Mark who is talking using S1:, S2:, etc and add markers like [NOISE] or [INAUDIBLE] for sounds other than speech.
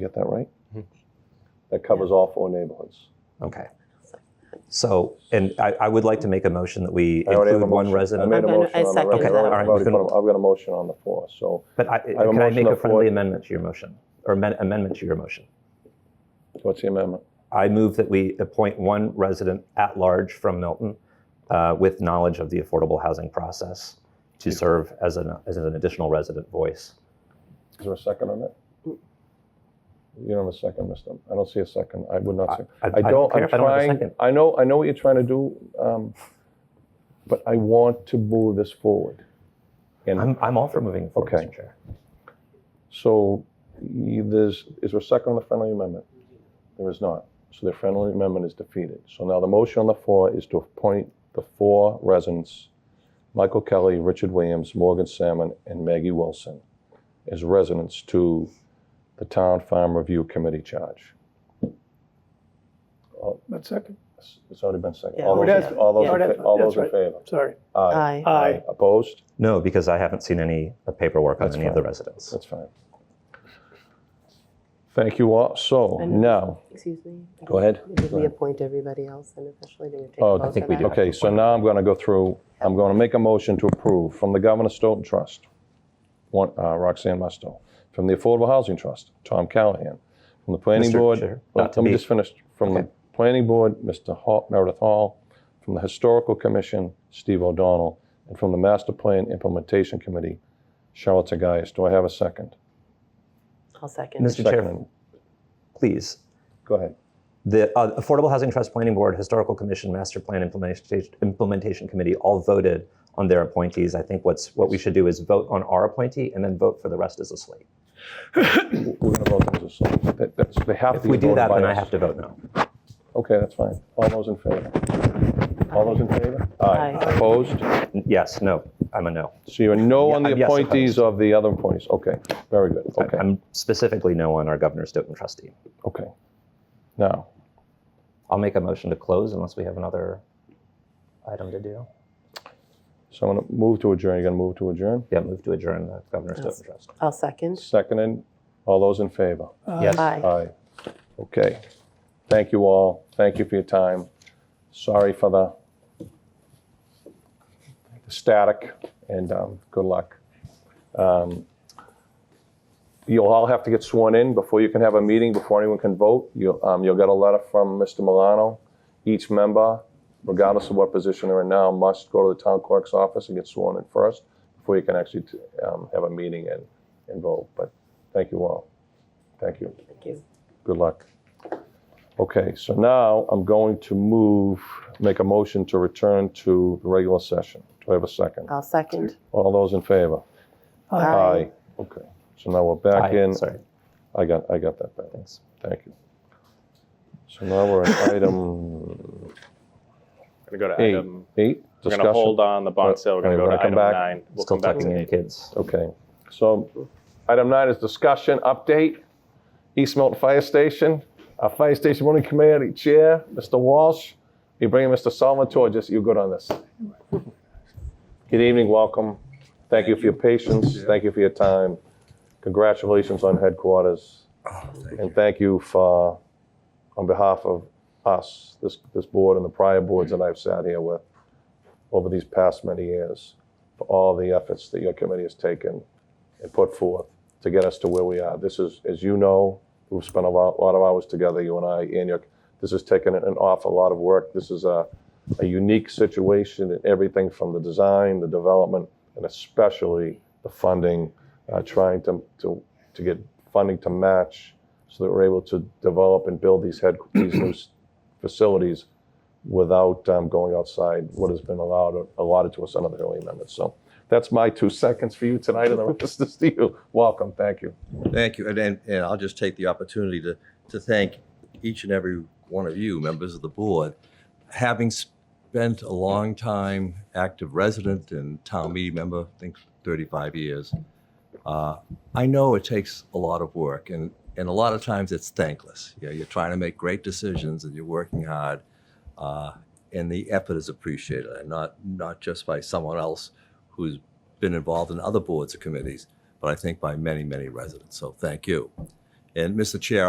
S1: You Get that right?
S2: Mm-hmm.
S1: That covers all four neighborhoods.
S2: Okay. So, and I, I would like to make a motion that we
S1: I already have a
S2: include one
S1: motion. I
S2: resident.
S1: made a
S3: I'm gonna-
S1: motion
S3: I
S1: on the
S3: second
S1: record.
S3: that.
S1: I've
S2: Okay, all right,
S1: already
S2: we
S1: put
S2: can-
S1: a- I've got a motion on the floor, so
S2: But I,
S1: have a
S2: can I
S1: motion
S2: make
S1: on
S2: a
S1: the floor.
S2: friendly amendment to your motion, or amen- amendment to your motion?
S1: what's the amendment?
S2: I move that we appoint one resident at large from Milton uh, with knowledge of the affordable housing process to serve as an, as an additional resident voice.
S1: Is there a second on that? You don't have a second, mister. I don't see a second. I would not say.
S2: I-
S1: I don't, I'm
S2: I don't have a
S1: trying,
S2: second.
S1: I know, I know what you're trying to do, um, but I want to move this forward. And
S2: I'm, I'm all for moving forward,
S1: Okay.
S2: Mr. Chair.
S1: so y- there's, is there a second on the friendly amendment? There is not. So the friendly amendment is defeated. So now the motion on the floor is to appoint the four residents, Michael Kelly, Richard Williams, Morgan Salmon, and Maggie Wilson, as residents to the Town Farm Review Committee charge.
S4: But second,
S1: It's it's already been seconded.
S3: Yeah.
S1: All
S3: Oh,
S1: those,
S4: it
S1: in-
S4: has-
S1: all those,
S4: yeah.
S1: in fa- all those in
S4: That's
S1: favor?
S4: sorry.
S3: Aye.
S4: Aye.
S1: Opposed?
S2: No, because I haven't seen any uh, paperwork on
S1: That's
S2: any of
S1: fine.
S2: the residents.
S1: That's fine. Thank you all. So
S3: And-
S1: now,
S3: Excuse me?
S1: go ahead.
S3: Did we appoint everybody else then officially? Did we take a
S1: Oh,
S3: vote
S1: I
S2: think
S3: on
S2: we
S3: that?
S2: did.
S1: Okay, so now I'm going to go through, I'm going to make a motion to approve from the Governor Stoughton Trust, one, uh, Roxanne Musto, from the Affordable Housing Trust, Tom Callahan, from the Planning
S2: Mr.
S1: Board.
S2: Chair,
S1: Let-
S2: not to
S1: Let me
S2: be-
S1: just finish. From the
S2: Okay.
S1: Planning Board, Mr. Hall- Meredith Hall, from the Historical Commission, Steve O'Donnell, and from the Master Plan Implementation Committee, Charlotte Tagayas. Do I have a second?
S3: I'll second.
S2: Mr. Chair,
S1: Second.
S2: please,
S1: Go ahead.
S2: The uh, Affordable Housing Trust Planning Board, Historical Commission, Master Plan Implementation, Implementation Committee all voted on their appointees. I think what's what we should do is vote on our appointee and then vote for the rest as a slate.
S1: We're going to vote as a slate. That- that's- They have
S2: If
S1: to be
S2: we do
S1: voted
S2: that,
S1: by
S2: then I
S1: us.
S2: have to vote no.
S1: Okay, that's fine. All those in favor? All those in favor?
S3: Aye.
S1: Opposed?
S2: N- Yes, no, I'm a no.
S1: So you're no
S2: Yeah,
S1: on the
S2: I'm yes opposed.
S1: appointees of the other appointees? Okay, very good.
S2: I-
S1: Okay,
S2: I'm specifically no on our Governor Stoughton trustee.
S1: okay. Now,
S2: I'll make a motion to close unless we have another item to do.
S1: so I'm going to move to adjourn. You're going to move to adjourn?
S2: Yeah, move to adjourn the Governor Stoughton trust.
S3: I'll second.
S1: Seconded. All those in favor?
S2: Yes.
S3: Aye.
S1: Aye. Okay. Thank you all. Thank you for your time. Sorry for the static and um, good luck. Um, You'll all have to get sworn in before you can have a meeting, before anyone can vote. You'll, um, you'll get a letter from Mr. Milano. Each member, regardless of what position they're in now, must go to the town clerk's office and get sworn in first before you can actually um, have a meeting and, and vote. But thank you all. Thank you.
S3: Thank you.
S1: Good luck. Okay, so now I'm going to move, make a motion to return to the regular session. Do I have a second?
S3: I'll second.
S1: All those in favor? Okay, so now we're back
S2: Aye,
S1: in.
S2: Sorry,
S1: I got, I got that back.
S2: thanks.
S1: Thank you. So now we're
S5: [COUGHS]
S1: at item
S5: We're gonna go to
S1: eight.
S5: item,
S1: Eight,
S5: we're gonna hold
S1: discussion.
S5: on the bond sale, we're gonna
S1: Alright,
S5: go
S1: when
S5: to
S1: I come back,
S5: item nine. We'll
S2: Still
S5: come back to
S2: tucking in
S5: eight.
S2: kids.
S1: Okay, so item nine is discussion update. East Milton Fire Station, our Fire Station Running Committee Chair, Mr. Walsh. You bringing Mr. Salvatore, just, you're good on this. Good evening, welcome. Thank you for your patience, thank you for your time. Congratulations on headquarters. And Oh, thank you for, on behalf of us, this, this board and the prior boards that I've sat here with over these past many years, for all the efforts that your committee has taken and put forth to get us to where we are. This is, as you know, we've spent a lot, lot of hours together, you and I, and your, this has taken an awful lot of work. This is a, a unique situation in everything from the design, the development, and especially the funding, uh, trying to, to, to get funding to match so that we're able to develop and build these head, these new s- facilities without um, going outside what has been allowed, allotted to us under the early amendment. So that's my two seconds for you tonight, and the rest is to you. Welcome, thank you.
S6: Thank you, and, and, and I'll just take the opportunity to, to thank each and every one of you, members of the board. Having spent a long time active resident and town meeting member, I think thirty-five years, uh, I know it takes a lot of work, and, and a lot of times it's thankless. You know, you're trying to make great decisions and you're working hard, uh, and the effort is appreciated, and not, not just by someone else who's been involved in other boards or committees, but I think by many, many residents. So thank you. And Mr. Chair,